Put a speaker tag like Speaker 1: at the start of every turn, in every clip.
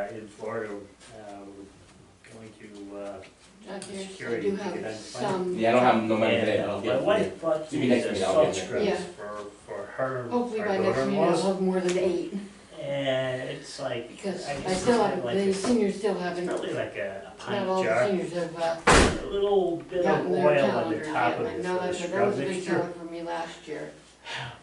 Speaker 1: back in Florida, uh, we're going to, uh,
Speaker 2: Okay, so I
Speaker 1: Security,
Speaker 2: do
Speaker 1: you
Speaker 2: have
Speaker 1: can-
Speaker 2: some.
Speaker 3: Yeah, I don't have no money
Speaker 1: yeah,
Speaker 3: today, but I'll
Speaker 1: my
Speaker 3: get it.
Speaker 1: wife bought
Speaker 3: Give me
Speaker 1: these
Speaker 3: next meeting, I'll get it.
Speaker 1: subscripts
Speaker 2: Yeah.
Speaker 1: for, for her,
Speaker 2: Hopefully by
Speaker 1: her
Speaker 2: next meeting I'll
Speaker 1: daughter-in-law.
Speaker 2: have more than eight,
Speaker 1: And it's like, I
Speaker 2: because
Speaker 1: guess
Speaker 2: I
Speaker 1: it's
Speaker 2: still
Speaker 1: like,
Speaker 2: have, the
Speaker 1: a-
Speaker 2: seniors still haven't, not
Speaker 1: probably like a a pint
Speaker 2: all the
Speaker 1: jar,
Speaker 2: seniors have uh,
Speaker 1: a little bit of
Speaker 2: gotten their
Speaker 1: oil on the
Speaker 2: calendars
Speaker 1: top of
Speaker 2: yet. I
Speaker 1: it
Speaker 2: know
Speaker 1: for the
Speaker 2: that's, that
Speaker 1: scrub
Speaker 2: was a big
Speaker 1: mixture.
Speaker 2: seller for me last year.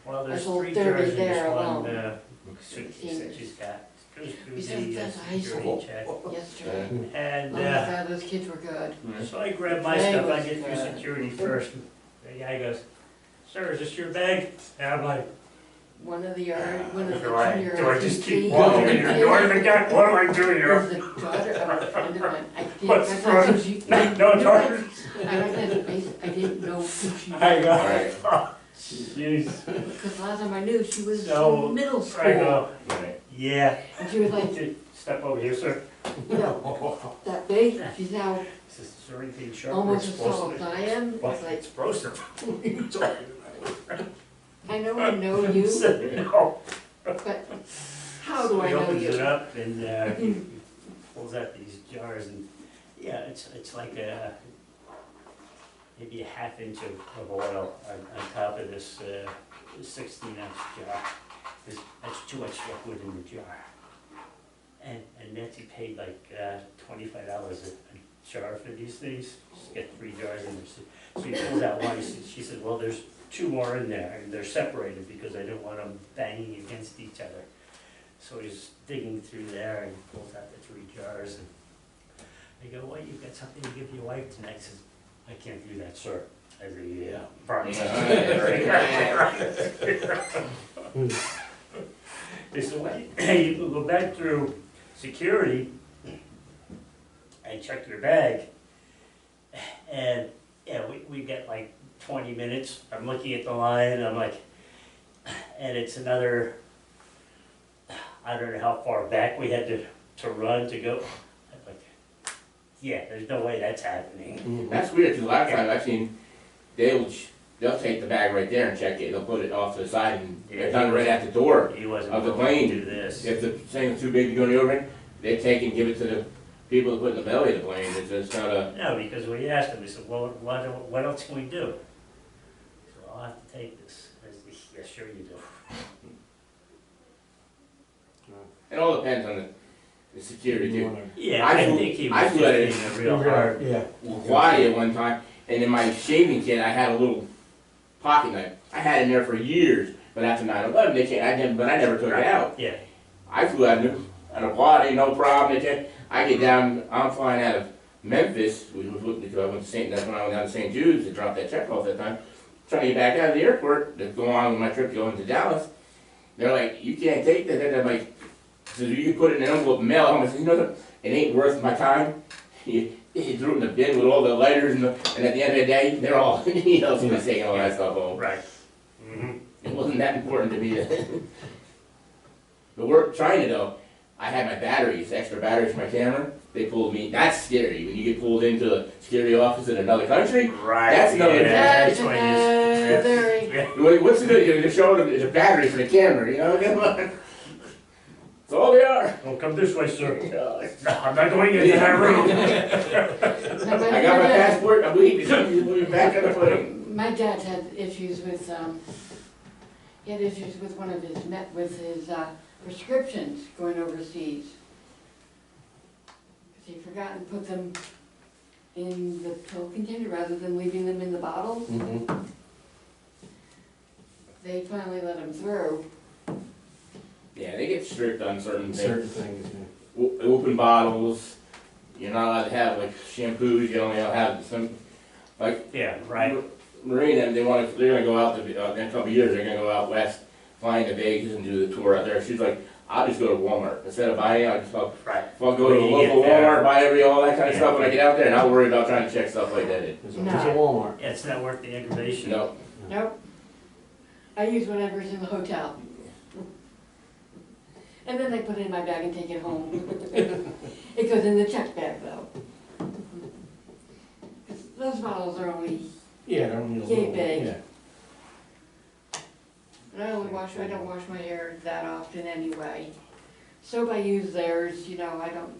Speaker 1: Well, there's
Speaker 2: sold
Speaker 1: three
Speaker 2: 30
Speaker 1: jars in this
Speaker 2: there
Speaker 1: one,
Speaker 2: alone.
Speaker 1: uh, suitcase that
Speaker 2: Seniors.
Speaker 1: she's got. Goes through
Speaker 2: Besides,
Speaker 1: the uh,
Speaker 2: that's a high
Speaker 1: security check.
Speaker 2: Yesterday, oh
Speaker 1: And,
Speaker 2: my
Speaker 1: uh,
Speaker 2: god, those kids were good.
Speaker 1: So I grab my
Speaker 2: Bag
Speaker 1: stuff, I
Speaker 2: was
Speaker 1: get through
Speaker 2: good.
Speaker 1: security first, and the guy goes, sir, is this your bag? And I'm like,
Speaker 2: One of the yard, one of the
Speaker 1: do I,
Speaker 2: junior.
Speaker 1: do I just keep
Speaker 2: RCP
Speaker 1: walking in
Speaker 2: kids
Speaker 1: your door to the guy? What am I doing here?
Speaker 2: Was the daughter of a friend of mine, I did,
Speaker 1: What's
Speaker 2: that's
Speaker 1: wrong?
Speaker 2: not who she.
Speaker 1: No, no,
Speaker 2: I
Speaker 1: daughter.
Speaker 2: don't have a face, I didn't know who she
Speaker 1: I
Speaker 2: was,
Speaker 1: go,
Speaker 3: Right.
Speaker 1: oh, jeez.
Speaker 2: because last time I knew, she was
Speaker 1: So,
Speaker 2: in middle
Speaker 1: I
Speaker 2: school.
Speaker 1: go,
Speaker 3: Right.
Speaker 1: yeah,
Speaker 2: And she was like,
Speaker 1: step over here, sir.
Speaker 2: you know, that big, she's now
Speaker 1: Is this- is there anything sharp or
Speaker 2: almost as tall
Speaker 1: explosive?
Speaker 2: as I am, it's
Speaker 1: What,
Speaker 2: like,
Speaker 1: explosive? What are you talking
Speaker 2: I know I know
Speaker 1: about?
Speaker 2: you,
Speaker 1: So, no.
Speaker 2: but how do I know
Speaker 1: He opens it
Speaker 2: you?
Speaker 1: up and, uh, he he pulls out these jars and, yeah, it's, it's like a, maybe a half inch of, of oil on, on top of this, uh, sixteen ounce jar. There's, that's too much liquid in the jar. And, and Nancy paid like, uh, twenty-five dollars a a jar for these things, just get three jars in there. So- So he pulls out one, he said- she said, well, there's two more in there, and they're separated because I don't want them banging against each other. So he's digging through there and pulls out the three jars and I go, well, you've got something to give your wife tonight. He says, I can't do that, sir. I uh, go, yeah, probably. He said, well, you can go back through security and check your bag. And, yeah, we, we get like twenty minutes. I'm looking at the line, I'm like, and it's another, I don't know how far back we had to, to run to go. I'm like, Yeah, there's no way that's happening.
Speaker 3: That's weird, because a lot of times I've seen, they'll, ch- they'll take the bag right there and check it, they'll put it off to the side and they're done right at the door.
Speaker 1: He wasn't
Speaker 3: Of the
Speaker 1: willing to
Speaker 3: plane.
Speaker 1: do this.
Speaker 3: If the thing's too big to go in the overhead, they take and give it to the people that put in the belly of the plane, it's just not a,
Speaker 1: No, because we asked him, we said, well, what, what else can we do? He said, I'll have to take this. I said, yeah, sure you do.
Speaker 3: it all depends on the, the security too.
Speaker 1: Yeah,
Speaker 3: I
Speaker 1: I
Speaker 3: flew-
Speaker 1: think he
Speaker 3: I
Speaker 1: was just
Speaker 3: flew at it.
Speaker 1: being a real hard.
Speaker 4: Yeah.
Speaker 3: Hawaii at one time, and in my shaving kit, I had a little pocket knife. I had it in there for years, but after 9/11, they can't. I didn't, but I never took it out.
Speaker 1: Yeah,
Speaker 3: I flew out of out of Hawaii, no problem. They can't. I get down. I'm flying out of Memphis. We was looking because I went to St. That's when I went down to St. Jude's to drop that check off that time. Trying to get back out of the airport to go on with my trip going to Dallas. They're like, you can't take that. They're like, so you can put it in an envelope and mail. it home." I said, you know, what? it ain't worth my time. He, he threw it in the bin with all the lighters and, the, and at the end of the day, they're all, you know, somebody's taking all that stuff home.
Speaker 1: right. Mhm.
Speaker 3: It wasn't that important to me. to- but we're trying to though. I had my batteries, extra batteries for my camera. They pulled me. That's scary when you get pulled into a security office in another country.
Speaker 1: Right.
Speaker 3: That's another-
Speaker 1: yeah, that's
Speaker 2: That's
Speaker 1: why he's-
Speaker 2: another-
Speaker 1: Yeah.
Speaker 3: What- What's the good? You're just showing them the batteries for the camera. You know, come on. That's all they are.
Speaker 1: Well, come this way, sir. No, I'm not going into that room.
Speaker 3: I got my passport. I'm leaving. We're back on the plane.
Speaker 2: My dad had issues with, um, he had issues with one of his, met with his, uh, prescriptions going overseas. 'Cause he forgot and put them in the pill container rather than leaving them in the bottle.
Speaker 4: Mm-hmm.
Speaker 2: They finally let him through.
Speaker 3: Yeah, they get strict on certain things.
Speaker 4: Certain things,
Speaker 3: o- open bottles. You're not allowed to have like shampoos. You only have some like
Speaker 1: Yeah, right.
Speaker 3: Marine, and they want to, they're gonna go out, to- uh, in a couple of years, they're gonna go out west, flying to Vegas and do the tour out there. She's like, I'll just go to Walmart. Instead of buying, I'll just, I'll,
Speaker 1: Right.
Speaker 3: I'll go to the
Speaker 1: When you
Speaker 3: local
Speaker 1: get there.
Speaker 3: Walmart, buy every, all that kind of
Speaker 1: Yeah.
Speaker 3: stuff when I get out there, and I'll worry about trying to check stuff like that in.
Speaker 4: There's
Speaker 2: No.
Speaker 4: always a Walmart.
Speaker 1: Yeah, it's not worth the
Speaker 3: You
Speaker 1: aggravation.
Speaker 3: know,
Speaker 2: Nope. I use whatever's in the hotel. And then I put it in my bag and take it home. It goes in the check bag though. 'Cause Those bottles are only
Speaker 4: Yeah, I don't need a
Speaker 2: Yay
Speaker 4: little.
Speaker 2: big.
Speaker 4: Yeah.
Speaker 2: And I only wash, I don't wash my hair that often anyway. So I use theirs, you know, I don't